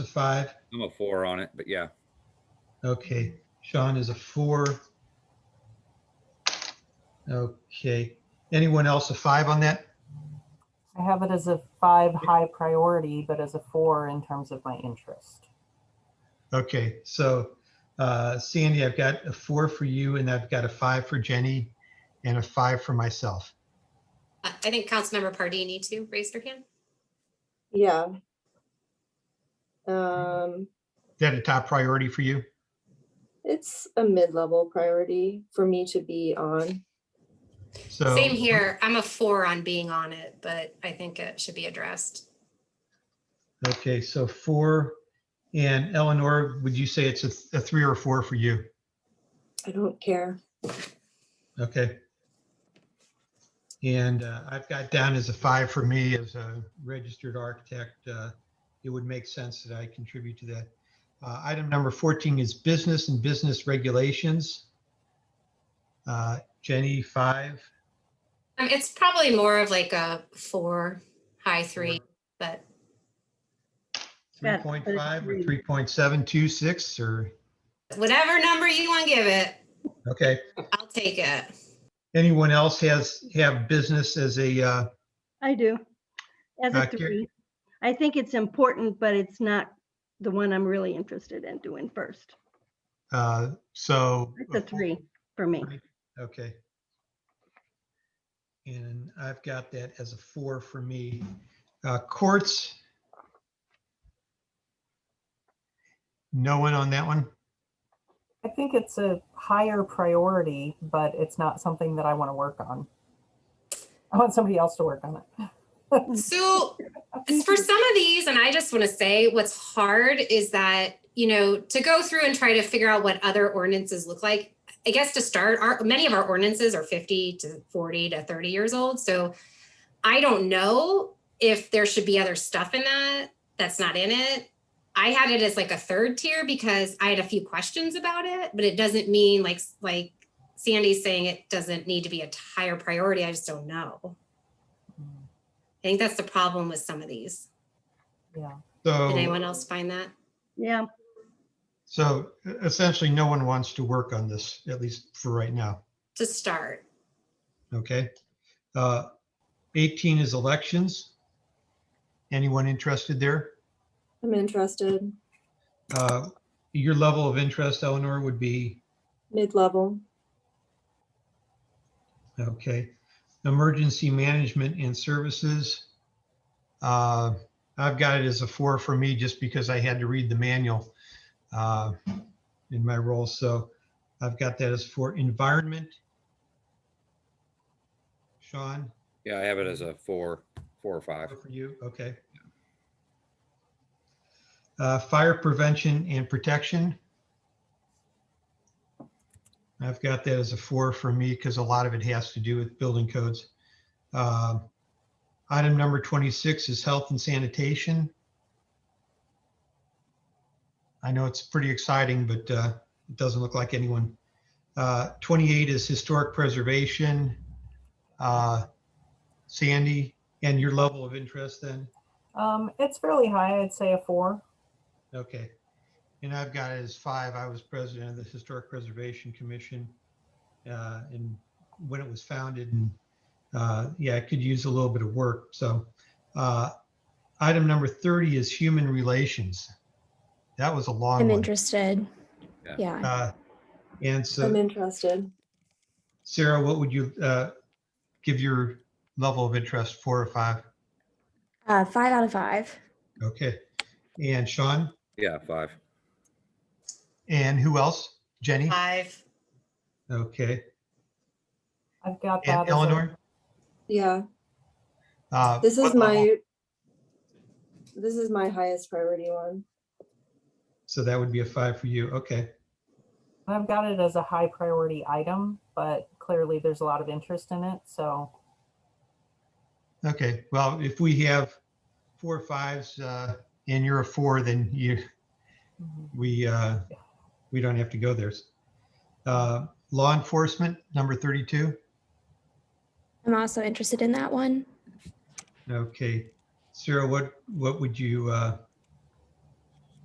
a five. I'm a four on it, but yeah. Okay, Sean is a four. Okay, anyone else a five on that? I have it as a five high priority, but as a four in terms of my interest. Okay, so uh, Sandy, I've got a four for you and I've got a five for Jenny and a five for myself. I I think Councilmember Pardini too raised her hand. Yeah. Um, Is that a top priority for you? it's a mid-level priority for me to be on. So Same here. I'm a four on being on it, but I think it should be addressed. Okay, so four. And Eleanor, would you say it's a, th- a three or a four for you? I don't care. Okay. And uh, I've got down as a five for me as a registered architect. uh, It would make sense that I contribute to that. Uh, Item number 14 is business and business regulations. Uh, Jenny, five. Um, it's probably more of like a four, high three, but Yeah, I 3.5 or agree. 3.726 or, whatever number you want to give it, okay. I'll take it. Anyone else has, have business as a, uh, I do. As a Uh, Carrie? three, I think it's important, but it's not the one I'm really interested in doing first. uh, so. It's a three for me. Three. Okay. And I've got that as a four for me. Uh, Courts. No one on that one? I think it's a higher priority, but it's not something that I want to work on. I want somebody else to work on it. So for some of these, and I just want to say what's hard is that, you know, to go through and try to figure out what other ordinances look like. I guess to start, our, many of our ordinances are 50 to 40 to 30 years old. So I don't know if there should be other stuff in that that's not in it. I had it as like a third tier because I had a few questions about it, but it doesn't mean like, like Sandy's saying it doesn't need to be a higher priority. I just don't know. I think that's the problem with some of these. Yeah, Did So, anyone else find that? Yeah, so essentially, no one wants to work on this, at least for right now. To start, Okay. Uh, 18 is elections. Anyone interested there? I'm interested, Uh, Your level of interest, Eleanor, would be? mid-level. Okay, emergency management and services. Uh, I've got it as a four for me just because I had to read the manual uh, in my role, so I've got that as for environment. Sean, Yeah, I have it as a four, four or five. for you, okay. Uh, Fire prevention and protection. I've got that as a four for me because a lot of it has to do with building codes. Um, Item number 26 is health and sanitation. I know it's pretty exciting, but uh, it doesn't look like anyone. Uh, 28 is historic preservation. Uh, Sandy, and your level of interest then? um, it's fairly high. I'd say a four. Okay. And I've got it as five. I was president of the Historic Preservation Commission. uh, And when it was founded and, uh, yeah, it could use a little bit of work. So uh, item number 30 is human relations. That was a long I'm one. interested. Yeah. Yeah. Uh, And I'm so interested. Sarah, what would you uh, give your level of interest, four or five? Uh, five out of five. Okay. And Sean? Yeah, five. And who else? Jenny? five. Okay. I've got that. And as a- Eleanor? Yeah, Uh, this is what level? my, this is my highest priority one. So that would be a five for you. Okay. I've got it as a high priority item, but clearly there's a lot of interest in it. So Okay. Well, if we have four fives, uh, and you're a four, then you, mhm. we, uh, we don't have to go there. Uh, law enforcement, number thirty-two. I'm also interested in that one. Okay. Sarah, what, what would you, uh,